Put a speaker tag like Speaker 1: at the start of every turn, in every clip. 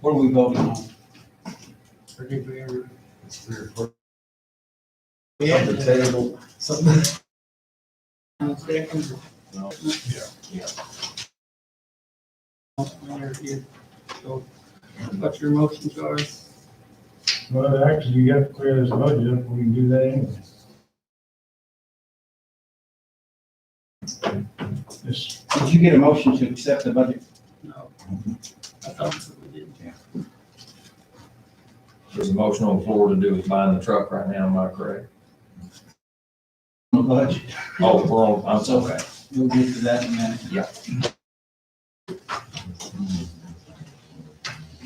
Speaker 1: What are we voting on?
Speaker 2: On the table,
Speaker 1: On the second?
Speaker 2: No.
Speaker 1: Yeah. Yeah. So, what your motions are,
Speaker 3: Well, actually, you have to clear this budget up, we can do that anyway. This,
Speaker 4: Did you get a motion to accept the budget?
Speaker 1: no. I thought so, we did.
Speaker 2: there's a motion on the floor to do with buying the truck right now, am I correct?
Speaker 4: The budget,
Speaker 2: Oh, we're on, I'm sorry.
Speaker 4: we'll get to that in a minute.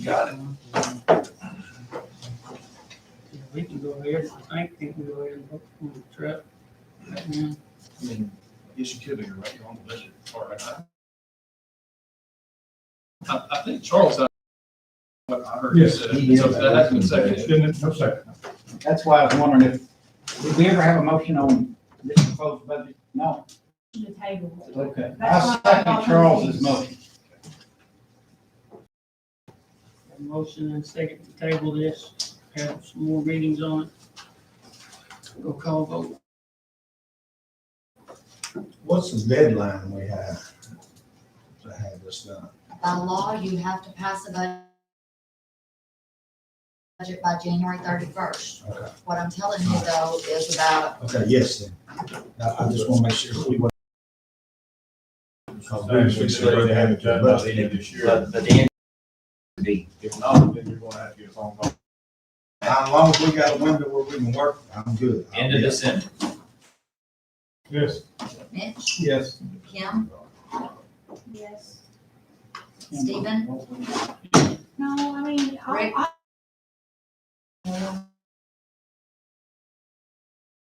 Speaker 1: Got it. We can go ahead, I think we can go ahead and vote on the truck. right now.
Speaker 5: I mean, yes, you could, but you're right, you're on the budget part. I, I I think Charles, I, what I heard you
Speaker 3: Yes,
Speaker 5: said,
Speaker 4: he
Speaker 5: so
Speaker 4: is.
Speaker 5: that has been
Speaker 3: it's
Speaker 5: seconded.
Speaker 3: in it, no second.
Speaker 4: That's why I was wondering if, did we ever have a motion on this proposed budget? No,
Speaker 6: the table.
Speaker 4: okay.
Speaker 6: That's
Speaker 4: I
Speaker 6: why I
Speaker 4: second
Speaker 6: thought-
Speaker 4: Charles's motion.
Speaker 1: A Motion and second to table this, have some more readings on it. Go call vote.
Speaker 7: What's the deadline we have to have this done?
Speaker 8: By law, you have to pass a bud- budget by January thirty-first.
Speaker 7: Okay.
Speaker 8: What I'm telling you though is about,
Speaker 7: Okay, yes, then. I, I just want to make sure we. want-
Speaker 3: Thanks, we should already have it done by the end of this year.
Speaker 2: But, but the end would be,
Speaker 7: If not, then you're gonna have to get a phone call. As long as we got a window where we can work, I'm good.
Speaker 2: end of December,
Speaker 3: Yes,
Speaker 8: Mitch,
Speaker 4: Yes.
Speaker 8: Kim,
Speaker 6: Yes.
Speaker 8: Stephen,
Speaker 6: No, I mean,
Speaker 8: Rick.
Speaker 6: I,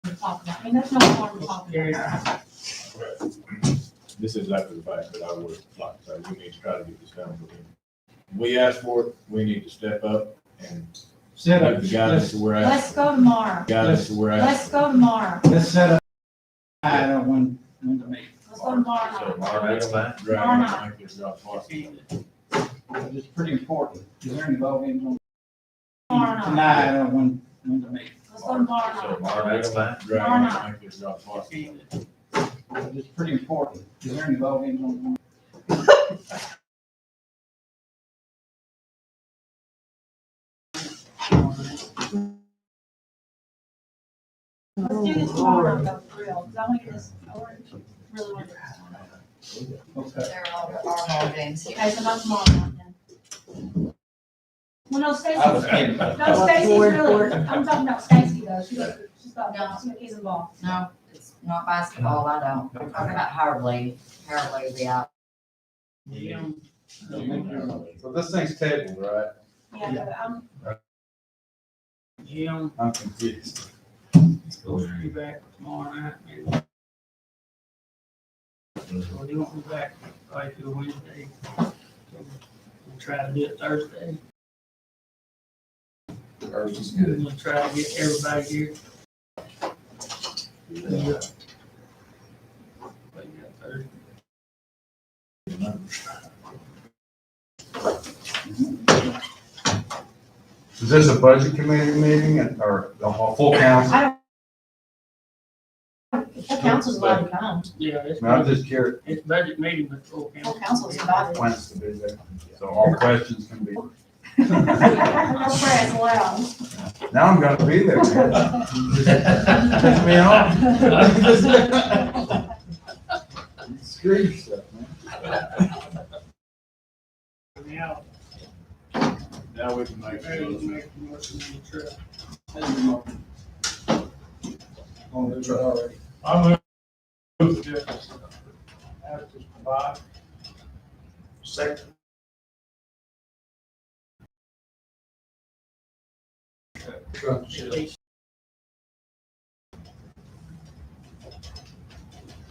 Speaker 8: we're talking about
Speaker 6: I mean, that's not what I'm
Speaker 1: Motion
Speaker 6: talking
Speaker 1: carried.
Speaker 6: about.
Speaker 9: this is after the fact, but I would like to say, we need to try to get this done. for them. We asked for it, we need to step up and
Speaker 4: Set
Speaker 9: give
Speaker 4: up,
Speaker 9: the
Speaker 4: let's,
Speaker 9: guidance that we're
Speaker 6: Let's
Speaker 9: asking.
Speaker 6: go tomorrow.
Speaker 9: Guidance that we're
Speaker 6: Let's
Speaker 9: asking.
Speaker 6: go tomorrow.
Speaker 4: let's set up. I don't want, want to make,
Speaker 6: Let's go tomorrow.
Speaker 2: so
Speaker 6: night.
Speaker 2: tomorrow night's fine.
Speaker 9: Right, I think it's not possible.
Speaker 4: it's pretty important, because they're involved in,
Speaker 6: Tomorrow night.
Speaker 4: tonight, I don't want, want to make,
Speaker 6: Let's go tomorrow
Speaker 2: So
Speaker 6: night.
Speaker 2: tomorrow night's fine.
Speaker 9: Right, I think it's not possible.
Speaker 4: it's pretty important, because they're involved in.
Speaker 6: Let's do this tomorrow though, for real, because I want to get this, I want to really want to. get this done.
Speaker 4: Okay.
Speaker 8: they're all, are all games here.
Speaker 6: Okay, so about tomorrow night then. Well, no,
Speaker 4: I was
Speaker 6: Stacy's,
Speaker 4: kidding.
Speaker 6: no, Stacy's really, I'm talking about Stacy though. She's, she's got, she's got kids involved.
Speaker 8: No, it's not basketball, I don't. We're talking about Howard Lee, Howard Lee will be out.
Speaker 1: uh,
Speaker 2: So this thing's tabled, right?
Speaker 6: Yeah, but I'm,
Speaker 1: Jim,
Speaker 4: I'm confused.
Speaker 1: go be back tomorrow night, maybe. Or you won't be back probably till Wednesday. So, We'll try to do it Thursday.
Speaker 2: Thursday's good.
Speaker 1: We'll try to get everybody here. Yeah. But yeah, Thursday.
Speaker 7: Is this a budget committee meeting or the full council?
Speaker 8: The council's allowed to come.
Speaker 1: Yeah, it's,
Speaker 7: just curious,
Speaker 1: it's budget meeting, but full council.
Speaker 8: Full council's invited.
Speaker 7: plans to be there. So all questions can be.
Speaker 6: no prayers allowed.
Speaker 7: Now I'm gonna be there. Piss me
Speaker 4: Screw yourself, man.
Speaker 1: Now,
Speaker 9: Now we can make.
Speaker 1: Mary, you make the motion on the trip.
Speaker 4: On the truck already.
Speaker 3: I'm moving to this, ask this provide.
Speaker 7: Second.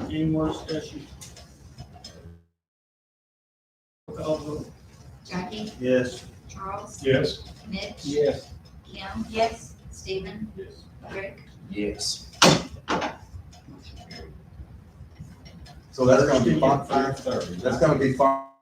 Speaker 1: Any more discussion? Call vote.
Speaker 8: Jackie,
Speaker 7: Yes.
Speaker 8: Charles,
Speaker 3: Yes,
Speaker 8: Mitch,
Speaker 4: Yes.
Speaker 8: Kim,
Speaker 6: Yes,
Speaker 8: Stephen,
Speaker 9: Yes.
Speaker 8: Rick,
Speaker 2: Yes.
Speaker 7: So that's gonna be five, five thirty. That's gonna be five